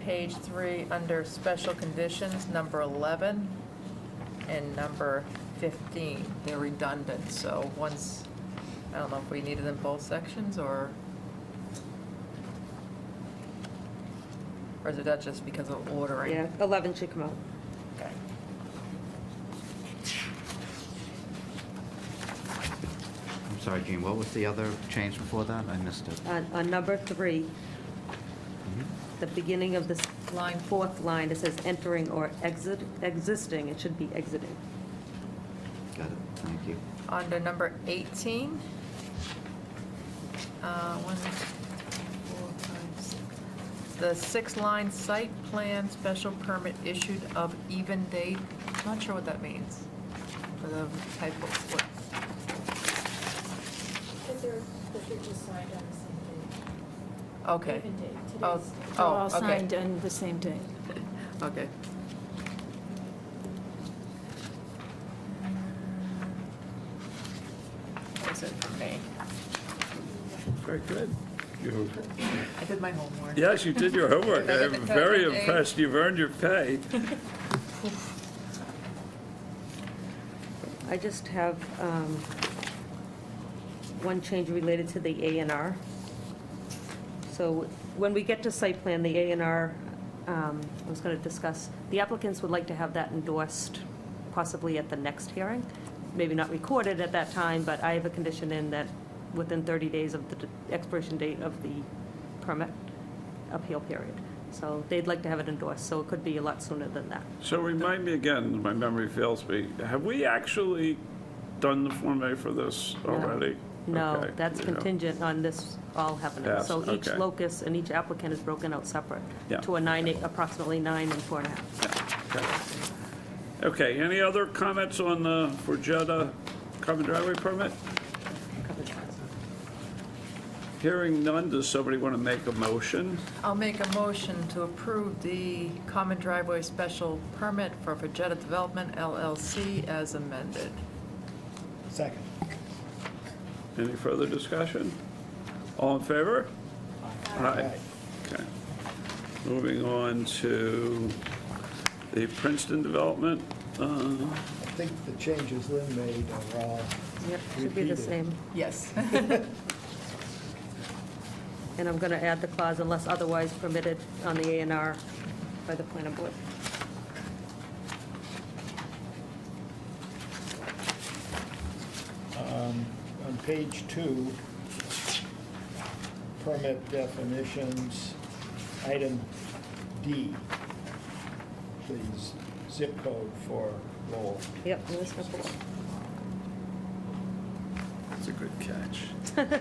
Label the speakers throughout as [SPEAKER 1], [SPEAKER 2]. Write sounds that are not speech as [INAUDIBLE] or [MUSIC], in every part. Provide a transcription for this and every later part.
[SPEAKER 1] page three, under special conditions, number 11 and number 15. They're redundant, so once, I don't know if we needed them both sections, or, or is it that just because of ordering?
[SPEAKER 2] Yeah, 11 should come out.
[SPEAKER 1] Okay.
[SPEAKER 3] I'm sorry, Gene, what was the other change before that? I missed it. Mm-hmm.
[SPEAKER 2] On, on number three, the beginning of this
[SPEAKER 1] Line four,
[SPEAKER 2] fourth line, it says entering or exit, existing, it should be exiting.
[SPEAKER 3] Got it, thank you.
[SPEAKER 1] under number 18. uh, one, two, three, four, five, six. The six-line site plan special permit issued of even date, not sure what that means for the typo. What-
[SPEAKER 4] But they're, but they're just signed on the same
[SPEAKER 1] Okay.
[SPEAKER 4] day. Even date,
[SPEAKER 1] Oh,
[SPEAKER 4] today's.
[SPEAKER 5] They're
[SPEAKER 1] oh,
[SPEAKER 5] all
[SPEAKER 1] okay,
[SPEAKER 5] signed on the same day.
[SPEAKER 1] [LAUGHS] okay. That's it for me.
[SPEAKER 6] Very good. You-
[SPEAKER 1] I did my homework.
[SPEAKER 6] Yes, you did your homework.
[SPEAKER 1] Did [LAUGHS] I get
[SPEAKER 6] I'm
[SPEAKER 1] the
[SPEAKER 6] very
[SPEAKER 1] code right?
[SPEAKER 6] impressed. You've earned your pay.
[SPEAKER 2] I just have um, one change related to the A and R. So when we get to site plan, the A and R, um, I was going to discuss, the applicants would like to have that endorsed possibly at the next hearing, maybe not recorded at that time, but I have a condition in that within 30 days of the expiration date of the permit appeal period. So they'd like to have it endorsed, so it could be a lot sooner than that.
[SPEAKER 6] So remind me again, my memory fails me, have we actually done the Form A for this already?
[SPEAKER 2] No,
[SPEAKER 6] Okay,
[SPEAKER 2] that's
[SPEAKER 6] you know.
[SPEAKER 2] contingent on this all happening.
[SPEAKER 6] Yes,
[SPEAKER 2] So each
[SPEAKER 6] okay.
[SPEAKER 2] locus and each applicant is broken out separate
[SPEAKER 6] Yeah.
[SPEAKER 2] to a nine, approximately nine and four and a half.
[SPEAKER 6] Okay, any other comments on the Borgetta common driveway permit?
[SPEAKER 2] coverage.
[SPEAKER 6] Hearing none, does somebody want to make a motion?
[SPEAKER 1] I'll make a motion to approve the common driveway special permit for Vegeta Development LLC as amended.
[SPEAKER 7] Second.
[SPEAKER 6] Any further discussion? All in favor? Aye. Okay. Moving on to the Princeton development. Uh,
[SPEAKER 7] I think the changes Lynn made are all,
[SPEAKER 2] Yep, should be the
[SPEAKER 7] Repeated.
[SPEAKER 2] same.
[SPEAKER 1] Yes. [LAUGHS]
[SPEAKER 2] And I'm going to add the clause unless otherwise permitted on the A and R by the planning board.
[SPEAKER 7] on page two, permit definitions, item D, the z- zip code for Lowell.
[SPEAKER 2] Yep, and this one below.
[SPEAKER 6] That's a good catch.
[SPEAKER 4] Was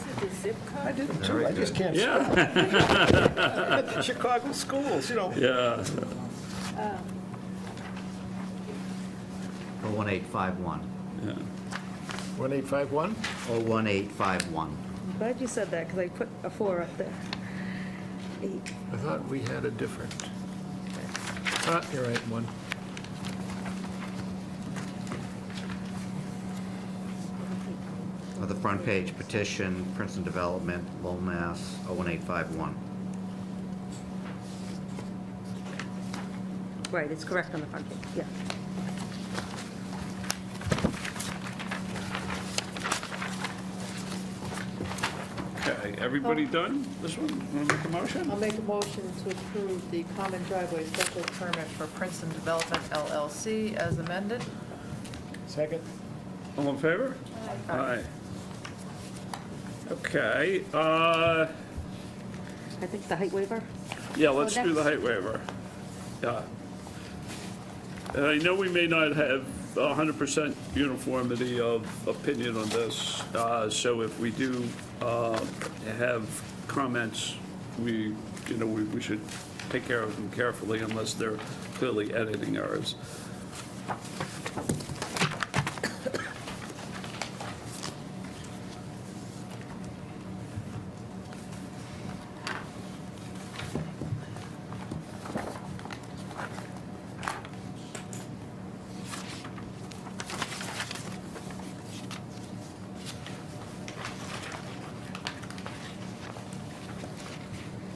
[SPEAKER 4] it the zip code?
[SPEAKER 7] I did too, I just can't.
[SPEAKER 6] Yeah,
[SPEAKER 7] Chicago schools, you know.
[SPEAKER 6] yeah.
[SPEAKER 3] Or 1851,
[SPEAKER 7] 1851?
[SPEAKER 3] or 1851.
[SPEAKER 2] I'm glad you said that because I put a four up there. Eight.
[SPEAKER 7] I thought we had a different. Ah, you're right, one.
[SPEAKER 3] On the front page, petition, Princeton Development, oh, Lowell, Mass., 01851.
[SPEAKER 2] Right, it's correct on the front page, yeah.
[SPEAKER 6] Okay, everybody done? This one, want to make a motion?
[SPEAKER 1] I'll make a motion to approve the common driveway special permit for Princeton Development LLC as amended.
[SPEAKER 7] Second?
[SPEAKER 6] All in favor? Aye. Okay, uh,
[SPEAKER 2] I think the height waiver,
[SPEAKER 6] yeah, let's do the
[SPEAKER 2] next.
[SPEAKER 6] height waiver. Yeah. And I know we may not have 100% uniformity of opinion on this, uh, so if we do uh, have comments, we, you know, we we should take care of them carefully unless they're clearly editing errors.